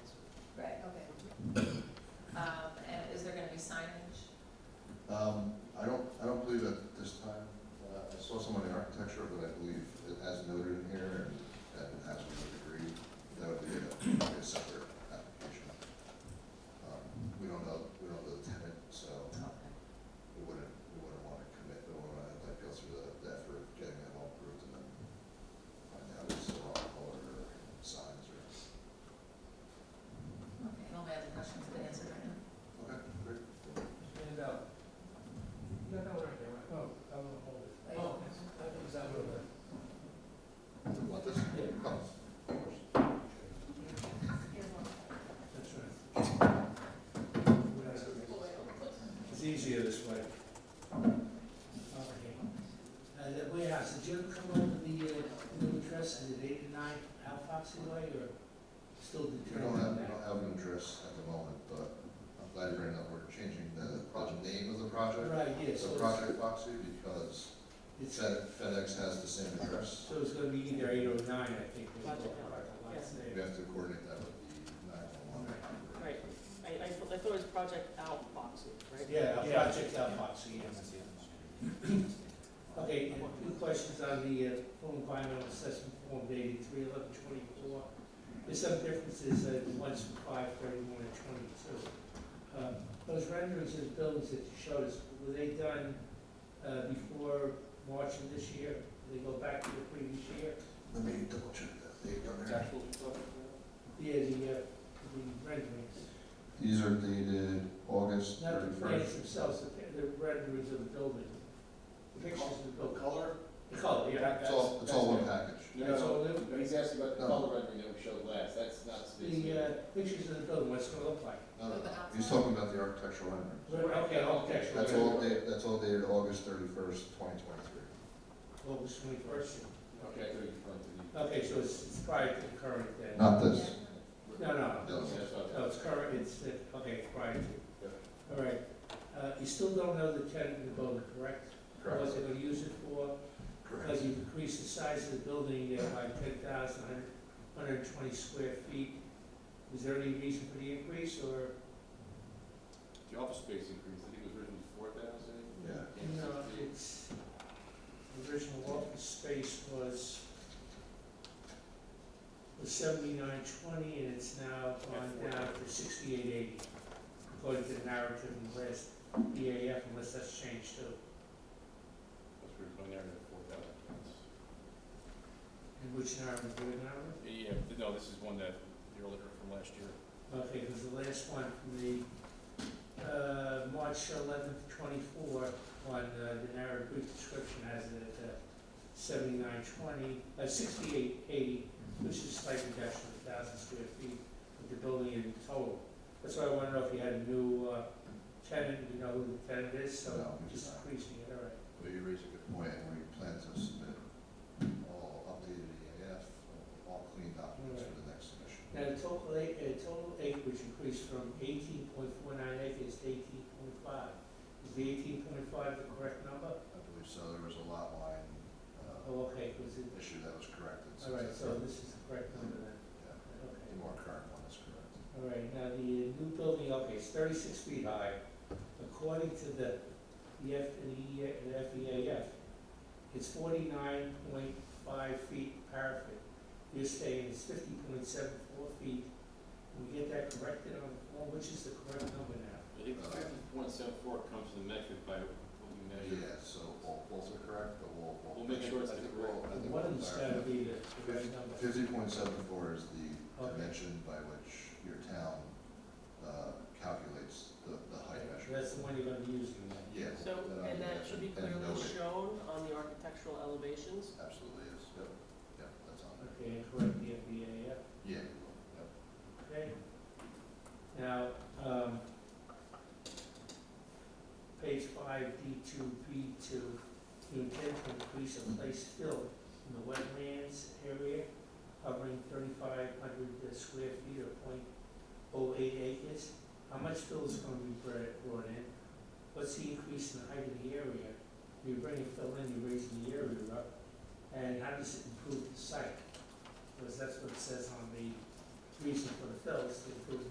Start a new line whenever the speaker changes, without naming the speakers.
Um,
Um, I don't, I don't believe at this time, uh, I saw someone in architecture, but I believe it has noted in here, and that it has with a degree, that would be a, a separate application. Um, We don't know, we don't know the tenant, so we wouldn't, we wouldn't wanna commit, we wouldn't wanna like go through the the effort of getting that all approved and then find out if it's the wrong color or signs or.
Okay, all my other questions have been answered right now.
Okay, great.
Hand it out. You got that one right there, right? Oh, I will hold it. Oh, that was that one.
Do you want this?
Yeah.
Oh, of course.
Here's one.
That's right. It's easier this way.
Okay. Uh, the warehouse, did you ever come up with the, uh, new address, is it eighty-nine Alfoxy Way, or still
We don't have,
determined
we
that?
don't have an address at the moment, but I'm glad you bring it up, we're changing the project name of the project.
Right, yeah,
It's
so
a
it's,
Project Foxy because
it's, so
Fed- FedEx has the same address.
it's gonna be either eight or nine, I think, was
Project
the
Alpha,
last name.
We have to coordinate that with the nine-one-one.
Right, I, I thought I thought it was Project Alfoxy, right?
Yeah,
Yeah.
Project Alfoxy, yes. Okay, and two questions on the, uh, full environmental assessment form dated three eleven twenty-four. There's some differences, uh, one's from five thirty-one and twenty-two. Uh, Those renderings of buildings that you showed us, were they done, uh, before March of this year? Did they go back to the previous year?
Let me double check that date on there.
Yeah, the, uh, the renderings.
These are dated August
Not the plans
thirty-first.
themselves, the, the renderings of the building. The pictures of the building.
color?
The color, yeah.
It's all, it's all one package.
No,
That's all
no,
it is?
no, he's asking about the
No.
color rendering that we showed last, that's not
The
specific.
uh, pictures of the building, what's it gonna look like?
No, no, no. Uh, he's talking about the architectural rendering.
Okay, architectural.
That's all dated, that's all dated August thirty-first, twenty twenty-three.
August twenty-first.
Okay, I could refer to you.
Okay, so it's, it's prior to the current then?
Not this.
No, no,
No.
Yeah, Oh, that's what I-
no, it's current, it's, uh, okay, it's prior to.
Yeah.
All right, uh, you still don't know the tenant of the building, correct? What they're gonna use it for, because you've increased the size of the building uh, by ten thousand, hundred and twenty square feet. Is there any reason for the increase, or?
The office space increase, I think it was originally four thousand?
Yeah.
No, uh, it's, the original office space was, was seventy-nine twenty, and it's now gone down to sixty-eight eighty, according to the narrative in the last EAF, unless that's changed too.
That's where it's going there, four thousand.
And which narrative, the narrative?
Yeah, no, this is one that, the earlier from last year.
Okay, because the last one from the, uh, March eleventh, twenty-four, on uh, the narrative brief description has it at uh, seventy-nine twenty, uh, sixty-eight eighty, which is a slight reduction of a thousand square feet of the building in total. That's why I wanna know if you had a new, uh, tenant, you know who the tenant is, so
No, we
just
just-
increasing it, all right.
Well, you raise a good point, and we plan to submit all updated EAF, all clean documents for the next submission.
Now, the total acre, uh, total acreage increased from eighteen point four nine acres to eighteen point five. Is the eighteen point five the correct number?
I believe so, there was a lot line, uh,
Oh, okay, 'cause it,
issue that was corrected.
all right, so
since-
this is the correct number then,
Yeah,
okay.
The more current one is correct.
All right, now the new building, okay, it's thirty-six feet high, according to the, the F, the E- the FEAF, it's forty-nine point five feet parapet. You're saying it's fifty point seven four feet, Can we get that corrected on the form, which is the correct number now?
I think fifty point seven four comes to the metric by what we measure.
Yeah, so both, both are correct, but we'll, we'll.
We'll make sure it's
I think
the
we'll- I
correct-
think
One
we'll
of them's
clarify.
gotta be the the right number.
Fifty point seven four is the
Okay.
dimension by which your town, uh, calculates the, the height measure.
That's the one you're gonna be using then.
Yeah.
So,
I
and that
imagine-
should be
and
clearly
noted.
shown on the architectural elevations.
Absolutely is, yep, yep, that's on there.
Okay, and correct the E FEAF.
Yeah, we will, yep.
Okay. Now, um, page five, D two, B two, you intend to increase a place fill in the wetlands area covering thirty-five hundred uh, square feet or point oh eight acres. How much fill is gonna be brought, brought in? What's the increase in the height of the area? You're bringing fill in, you're raising the area up, and how does it improve the site? Because that's what it says on the reason for the fill is to improve